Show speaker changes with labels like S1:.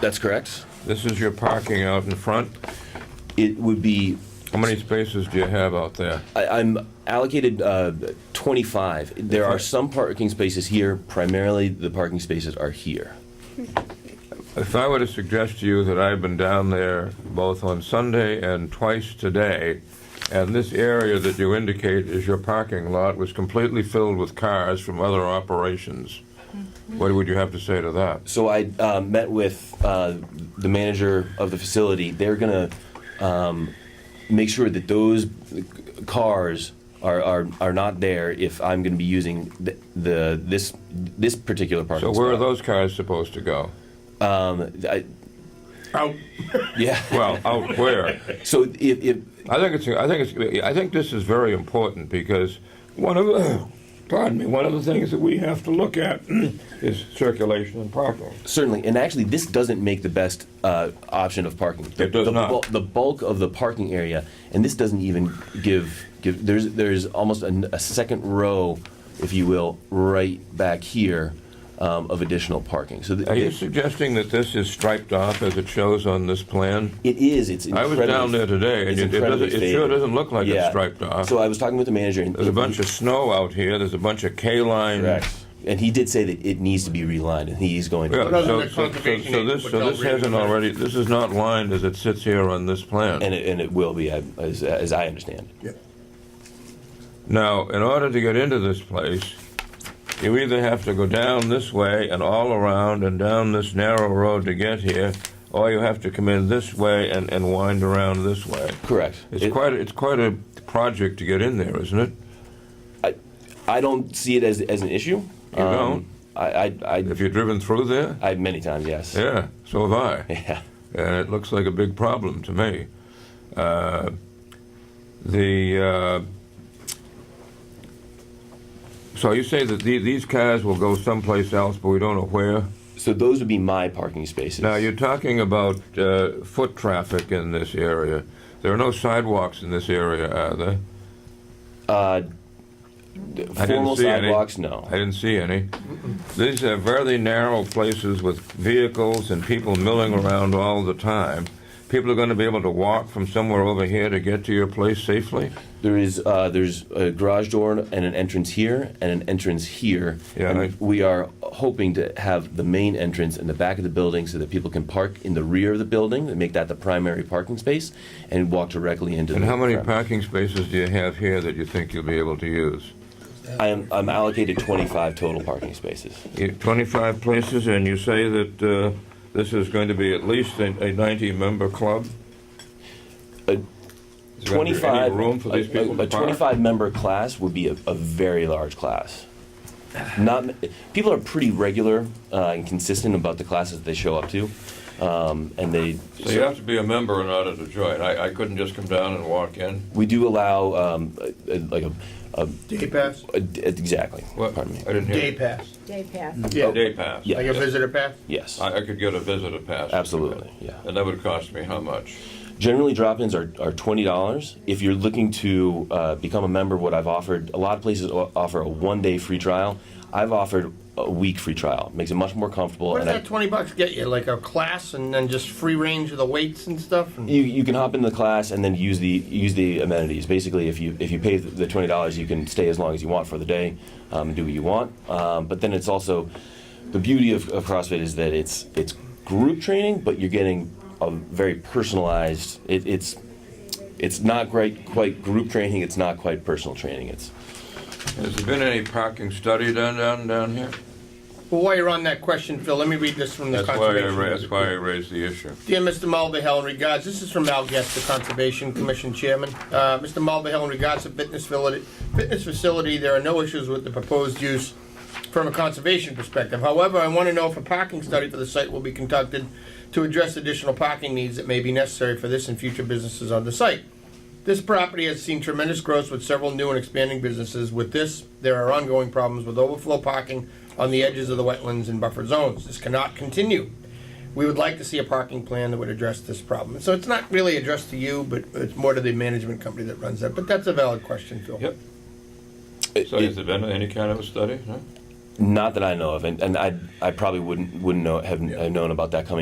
S1: That's correct.
S2: This is your parking out in front.
S1: It would be,
S2: How many spaces do you have out there?
S1: I, I'm allocated uh, 25. There are some parking spaces here, primarily the parking spaces are here.
S2: If I were to suggest to you that I've been down there both on Sunday and twice today, and this area that you indicate is your parking lot was completely filled with cars from other operations, what would you have to say to that?
S1: So I uh, met with uh, the manager of the facility. They're gonna um, make sure that those cars are, are, are not there if I'm gonna be using the, the this this particular
S2: So
S1: parking.
S2: where are
S1: spot.
S2: those cars supposed to go?
S1: Um, I,
S3: Out.
S1: yeah.
S2: Well, out where?
S1: So if, if
S2: I think it's. I think it's. I think this is very important because one of the, pardon me, one of the things that we have to look at is circulation and parking.
S1: Certainly, and actually, this doesn't make the best uh, option of parking. The,
S2: It does
S1: the,
S2: not.
S1: bu- the bulk of the parking area, and this doesn't even give give. There's there's almost an, a second row, if you will, right back here, um, of additional parking. So th-
S2: Are you
S1: it,
S2: suggesting that this is striped off as it shows on this plan?
S1: it is. It's.
S2: I was
S1: incredibly-
S2: down there today, and
S1: it's
S2: it, it, doesn't,
S1: incredibly
S2: it sure
S1: faded.
S2: doesn't look like
S1: Yeah.
S2: it's striped off.
S1: So I was talking with the manager. And
S2: There's a bunch of snow out here. There's a bunch of K line.
S1: Correct. And he did say that it needs to be relined, and he's going.
S2: Yeah,
S1: to
S3: Rather
S2: so,
S3: than
S2: so, so,
S3: conservation
S2: so
S3: aid,
S2: this
S3: which
S2: so
S3: I'll
S2: this
S3: read in a
S2: hasn't
S3: minute.
S2: already. This is not lined as it sits here on this plan.
S1: And it, and it will be, I- as, as I understand.
S2: Now, in order to get into this place, you either have to go down this way and all around and down this narrow road to get here, or you have to come in this way and, and wind around this way.
S1: Correct.
S2: It's
S1: It-
S2: quite it's quite a project to get in there, isn't it?
S1: I, I don't see it as, as an issue. Um,
S2: You don't?
S1: I, I, I,
S2: Have you driven through there?
S1: I many times, yes.
S2: Yeah, so have I.
S1: Yeah.
S2: and it looks like a big problem to me. Uh, the uh, so you say that the, these cars will go someplace else, but we don't know where.
S1: So those would be my parking spaces.
S2: Now you're talking about uh, foot traffic in this area. There are no sidewalks in this area, are there?
S1: uh, formal
S2: see any.
S1: sidewalks, no.
S2: I didn't see any. These are very narrow places with vehicles and people milling around all the time. People are going to be able to walk from somewhere over here to get to your place safely.
S1: There is uh, there's a garage door and an entrance here and an entrance here.
S2: Yeah,
S1: and
S2: I-
S1: we are hoping to have the main entrance in the back of the building so that people can park in the rear of the building and make that the primary parking space and walk directly into.
S2: And
S1: the
S2: how many
S1: front.
S2: parking spaces do you have here that you think you'll be able to use?
S1: I am I'm allocated 25 total parking spaces.
S2: You- 25 places, and you say that uh, this is going to be at least a 90-member club?
S1: A
S2: Is there gonna be any
S1: 25
S2: room for these
S1: a-
S2: people
S1: a,
S2: to
S1: a
S2: park?
S1: 25 member class would be a, a very large class not m- people are pretty regular uh, and consistent about the classes they show up to um, and they
S2: So you have to be a member in order to join. I I couldn't just come down and walk in?
S1: we do allow um, a, a- like a, a,
S3: Day pass?
S1: a- d- exactly
S2: What?
S1: pardon me
S2: I didn't
S3: Day
S2: hear.
S3: pass.
S4: Day pass.
S3: Yeah.
S2: Day pass?
S1: Yeah.
S3: Like a visitor pass?
S1: yes
S2: I I could get a visitor pass.
S1: Absolutely, yeah.
S2: And that would cost me how much?
S1: Generally, drop-ins are, are twenty dollars. If you're looking to uh, become a member, what I've offered, a lot of places o- offer a one-day free trial. I've offered a week free trial. Makes it much more comfortable.
S3: What does
S1: and I-
S3: that twenty bucks get you? Like a class and then just free range of the weights and stuff? And
S1: you, you can hop into the class and then use the use the amenities. Basically, if you if you pay the the twenty dollars, you can stay as long as you want for the day, um, and do what you want. Um, but then it's also the beauty of, of CrossFit is that it's it's group training, but you're getting a very personalized. It, it's it's not quite quite group training. It's not quite personal training. It's
S2: Has there been any parking study done down down here?
S3: Well, while you're on that question, Phil, let me read this from the
S2: That's why I
S3: conservation.
S2: ra- that's why I raised the issue.
S3: Dear Mr. Mulvihill, in regards, this is from Al Guest, the Conservation Commission Chairman. Uh, Mr. Mulvihill, in regards to fitness facility, fitness facility, there are no issues with the proposed use from a conservation perspective. However, I want to know if a parking study for the site will be conducted to address additional parking needs that may be necessary for this and future businesses on the site. This property has seen tremendous growth with several new and expanding businesses. With this, there are ongoing problems with overflow parking on the edges of the wetlands and buffer zones. This cannot continue. We would like to see a parking plan that would address this problem. So it's not really addressed to you, but it's more to the management company that runs that. But that's a valid question, Phil.
S2: Yep.
S1: it-
S2: So has there been any kind of a study? No?
S1: not that I know of, and, and I I probably wouldn't wouldn't know have, have known about that coming.